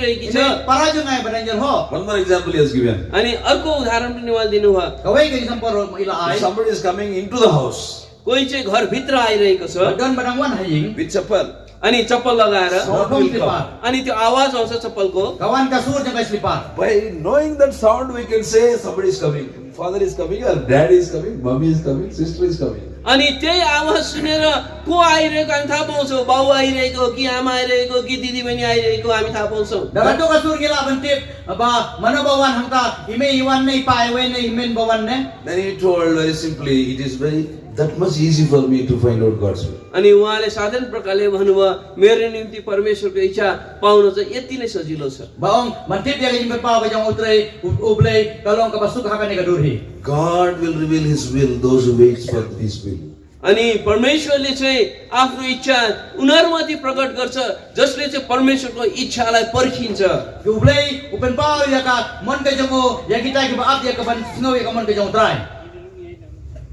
रहेकी छ Ini parajangai bananjal ho. One more example he has given. अनि अर्को उदाहरण पनि उहाँले दिनुभयो Kawai ke sampor ila ai. If somebody is coming into the house कोही चाहिँ घरभित्र आइरहेको छ Don banangwan haying. with chapel, अनि चप्पल लगाएर sound Sound will will come. अनि त्यो आवाज आउँछ चप्पलको Kawan kasur jangai selipar. By knowing that sound, we can say somebody is coming. Father is coming, or dad is coming, mommy is coming, sister is coming. अनि त्यही आवाज सुनेर को आइरहेको हामी थाहा पाउँछौँ बाउ आइरहेको कि आमा आइरहेको कि दिदीबहिनी आइरहेको हामी थाहा पाउँछौँ Dalam tu kasur gila bentit ba mana bawan hangta ime iwan nei pai we nei imen bawan ne. Then he told very simply, it is very that much easy for me to find out God's will. अनि उहाँले साधारण प्रकारले भन्नुभयो मेरो निम्ति परमेश्वरको इच्छा पाउन चाहिँ यति नै सजिलो छ Baong bentit dia jimbe pau ka jang utrai ublei kalong ka basuk hakan ka durhi. God will reveal his will, those who wait for his will. अनि परमेश्वरले चाहिँ आफ्नो इच्छा उनीहरूमाथि प्रकट गर्छ जसले चाहिँ परमेश्वरको इच्छालाई पर्खिन्छ Ki ublei upen pau ya ka mon ka jango ya kita ki baat ya ka ban snow ya ka mon ka jang utrai.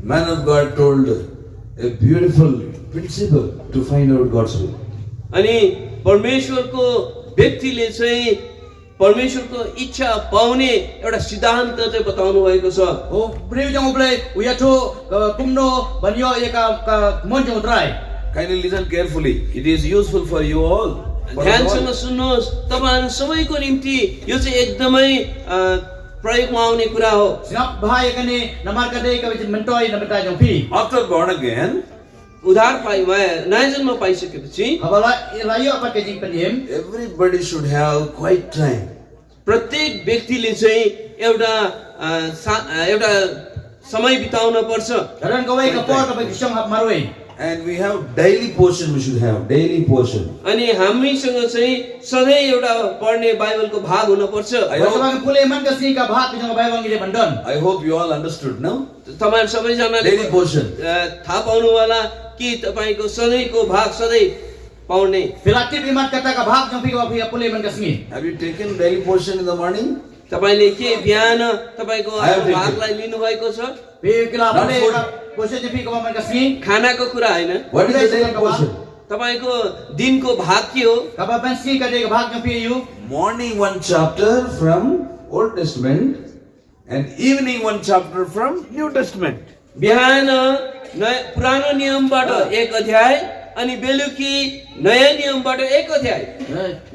Man of God told a beautiful principle to find out God's will. अनि परमेश्वरको व्यक्तिले चाहिँ परमेश्वरको इच्छा पाउने एउटा सिद्धान्त चाहिँ बताउनु भएको छ O breu jang ublei uyato kumno banyo ya ka ka mon jang utrai. Kindly listen carefully. It is useful for you all. For us ध्यानसँग all. सुन्नुहोस् तपाईँहरू सबैको निम्ति यो चाहिँ एकदमै अ, प्रयोगमा आउने कुरा हो Sinap bahaya kene namar kadai ka bitin mentoi na betai jang pi. After born again, उद्धार पाइ वा- नयाँ जन्म पाइसकेपछि Habala layo apa ke jing peniem. everybody should have quiet time. प्रत्येक व्यक्तिले चाहिँ एउटा अ, सा- अ, एउटा समय बिताउन पर्छ Karan kawai ka por ka bisyong hap marway. And we have daily portion we should have. Daily portion. अनि हामीसँग चाहिँ सधैँ एउटा पढ्ने बाइबलको भाग हुनपर्छ I Wala hope- bang pulay man ka sini ka bahat bisyong bayawang gide bandon. I hope you all understood now. तपाईँहरू सबैजनाले Daily portion. अ, थाहा पाउनु होला कि तपाईँको सधैँको भाग सधैँ पाउने Pilatip imat kata ka bahat jang pika pika pulay man ka sini. Have you taken daily portion in the morning? तपाईँले के बिहान तपाईँको I have taken. भागलाई लिनुभएको छ Pi kila Not pulay food. ka posya jang pika man ka sini. खानाको कुरा होइन What is the Yes, daily Bhagavan. portion? तपाईँको दिनको भाग के हो Ka ba ban sini ka de ka bahat jang pika yu. Morning one chapter from Old Testament and evening one chapter from New Testament. बिहान नयाँ पुरानो नियमबाट एक अध्याय अनि बेलुकी नयाँ नियमबाट एक अध्याय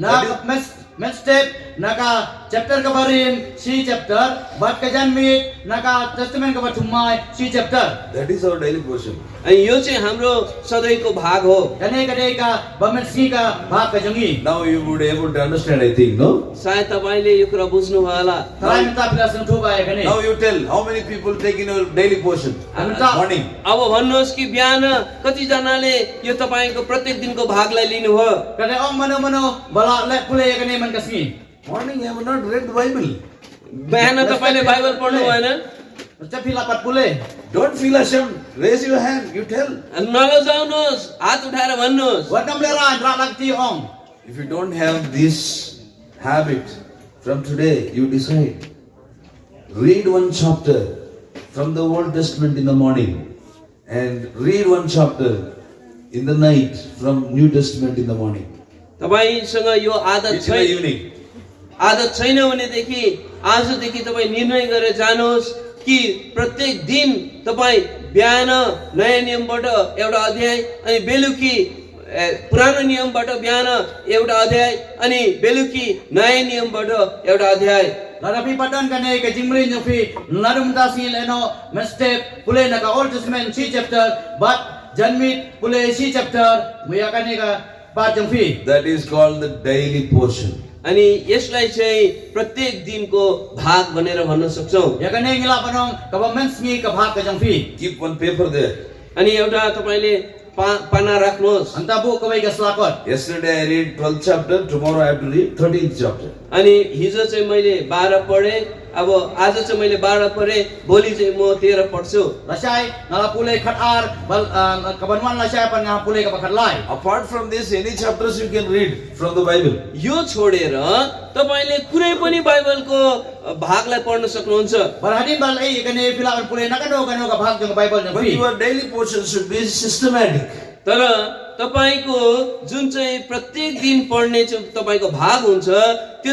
Na ka mes mes step na ka chapter ka barin si chapter bat ka jan mit na ka testament ka batumai si chapter. That is our daily portion. अनि यो चाहिँ हाम्रो सधैँको भाग हो Kane ka de ka bamen sini ka bahat ka jangi. Now you would able to understand, I think, no? सायद तपाईँले यो कुरा बुझ्नुभयो होला Tarai minta pila sang thuba ya kane. Now you tell how many people take in your daily portion. Minta. Morning. अब भन्नुहोस् कि बिहान कतिजनाले यो तपाईँको प्रत्येक दिनको भागलाई लिनुभयो Kada ong mano-mano bala lek pulay ka neman kasi. Morning, I have not read the Bible. बिहान तपाईँले बाइबल पढ्नु भएन Macam pila pat pulay. Don't feel ashamed. Raise your hand. You tell. नलजाउनुहोस् हात उठाएर भन्नुहोस् Wat nam lera dra lak ti ong. If you don't have this habit from today, you decide. Read one chapter from the Old Testament in the morning and read one chapter in the night from New Testament in the morning. तपाईँसँग यो आदत It's in the छैन evening. आदत छैन भनेदेखि आजदेखि तपाईँ निर्णय गरेर जानुहोस् कि प्रत्येक दिन तपाईँ बिहान नयाँ नियमबाट एउटा अध्याय अनि बेलुकी ए, पुरानो नियमबाट बिहान एउटा अध्याय अनि बेलुकी नयाँ नियमबाट एउटा अध्याय Lada pi padan ka nei ka jimrin yo pi larum ta si leno men step pulay na ka old testament si chapter but janmit pulay si chapter muya ka nei ka pat jong pi. That is called the daily portion. अनि यसलाई चाहिँ प्रत्येक दिनको भाग भनेर भन्न सक्छौँ Ya ka nei ngila panong ka ba men sngi ka bhak ka jong pi. Keep one paper there. अनि एउटा तपाईँले पा पाना राख्नुहोस् Anta bu ka wai ka slakot. Yesterday I read 12th chapter, tomorrow I have to read 13th chapter. अनि हिजो चाहिँ मैले बाह्र पढेँ अब आज चाहिँ मैले बाह्र पढेँ भोलि चाहिँ म तेह्र पढ्छु Lasai nala pulay khat ar bal ah, ka banwan lasai pan nga pulay ka bakhat lai. Apart from this, any chapters you can read from the Bible. यो छोडेर तपाईँले कुनै पनि बाइबलको भागलाई पढ्न सक्नुहुन्छ Barhadin balai ka nei pila pulay na ka do ka no ka bhak jong bible jong But pi. your daily portion should be systematic. तर तपाईँको जुन चाहिँ प्रत्येक दिन पढ्ने चाहिँ तपाईँको भाग हुन्छ त्यो